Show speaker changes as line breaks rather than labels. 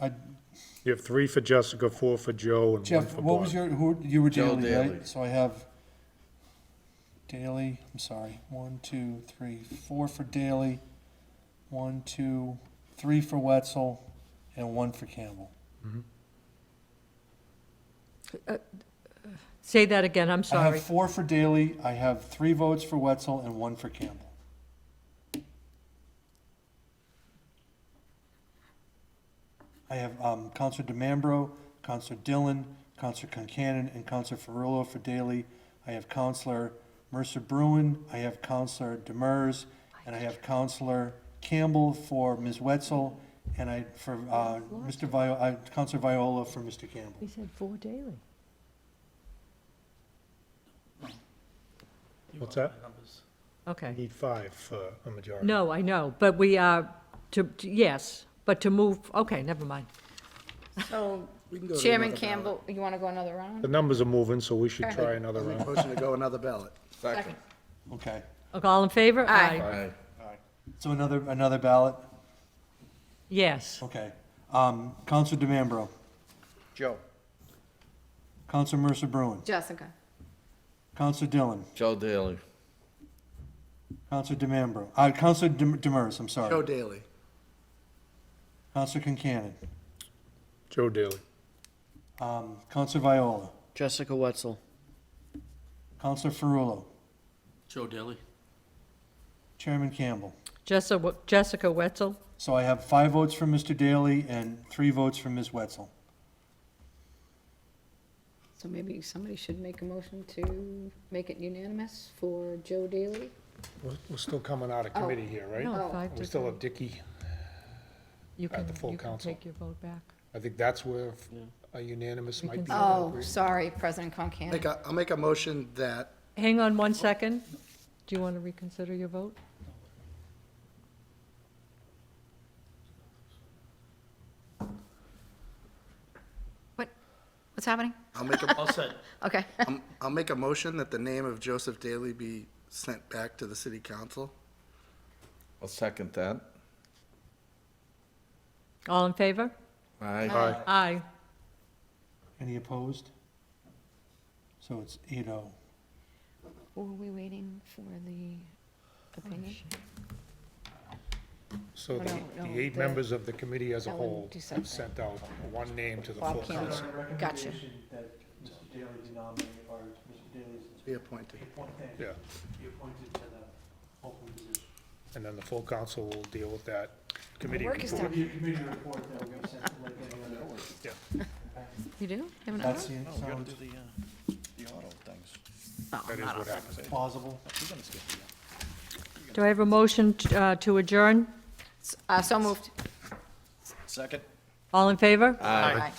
I-
You have three for Jessica, four for Joe, and one
Jeff,
for
what was
Bob.
your, who, you were
Joe
Daley,
Daley.
right? So I have Daley, I'm sorry, one, two, three, four for Daley, one, two, three for Wetzel, and one for Campbell.
Say that again, I'm
I
sorry.
have four for Daley, I have three votes for Wetzel, and one for Campbell. I have um, Counselor DeMambro, Counselor Dillon, Counselor Concanon, and Counselor Ferrullo for Daley. I have Counselor Mercer Bruin, I have Counselor Demers, and I have Counselor Campbell for Ms. Wetzel, and I, for uh, Mr. Viola, Counselor Viola for Mr. Campbell.
We said four daily.
What's that? You
Okay.
need five for a majority.
No, I know, but we are, to, to- yes, but to move, okay, never mind.
So,
We can go to
Oh, Chairman
another
Campbell, you want to go another round?
The numbers are moving, so we should try another
ballot.
round.
Motion to go another ballot.
Second.
Okay.
Okay, All in favor?
Aye.
Aye.
So another, another ballot?
Yes.
Okay. Um, Counselor DeMambro,
Joe.
Counselor Mercer Bruin,
Jessica.
Counselor Dillon,
Joe Daly.
Counselor DeMambro, uh, Counselor Dem- Demers, I'm
Joe
sorry.
Daly.
Counselor Concanon,
Joe Daly.
um, Counselor Viola,
Jessica Wetzel.
Counselor Ferrullo,
Joe Daly.
Chairman Campbell.
Jessica, Jessica Wetzel?
So I have five votes for Mr. Daley and three votes for Ms. Wetzel.
So maybe somebody should make a motion to make it unanimous for Joe Daly?
We're, we're still coming out of
Oh.
committee here, right?
No, five
We
to
still
zero.
have Dicky.
You
at
can,
the full
you can
council.
take your vote back.
I think that's where a unanimous might be
Oh,
appropriate.
sorry, President Concan.
Make a, I'll make a motion that,
Hang on one second. Do you want to reconsider your vote?
What, what's happening?
I'll make a,
All set.
Okay.
I'm- I'll make a motion that the name of Joseph Daly be sent back to the city council.
I'll second that.
All in favor?
Aye.
Aye.
Aye.
Any opposed? So it's eight oh.
Were we waiting for the opinion?
So the,
No, no,
the eight
the-
members of the committee as a
that one
whole
do something.
have sent out one name to the full
Bob Campbell.
council.
Gotcha.
That Mr. Daley denominate, or Mr. Daley's
Be appointed.
appointed,
Yeah,
appointed to the open position.
and then the full council will deal with that committee.
Work is
report.
done. You do? You have another
That
one?
seems, sounds
Oh, I'm
That is
not
what
off.
happens.
plausible.
Do I have a motion t- uh, to adjourn?
Uh, so moved.
All in favor?
Aye.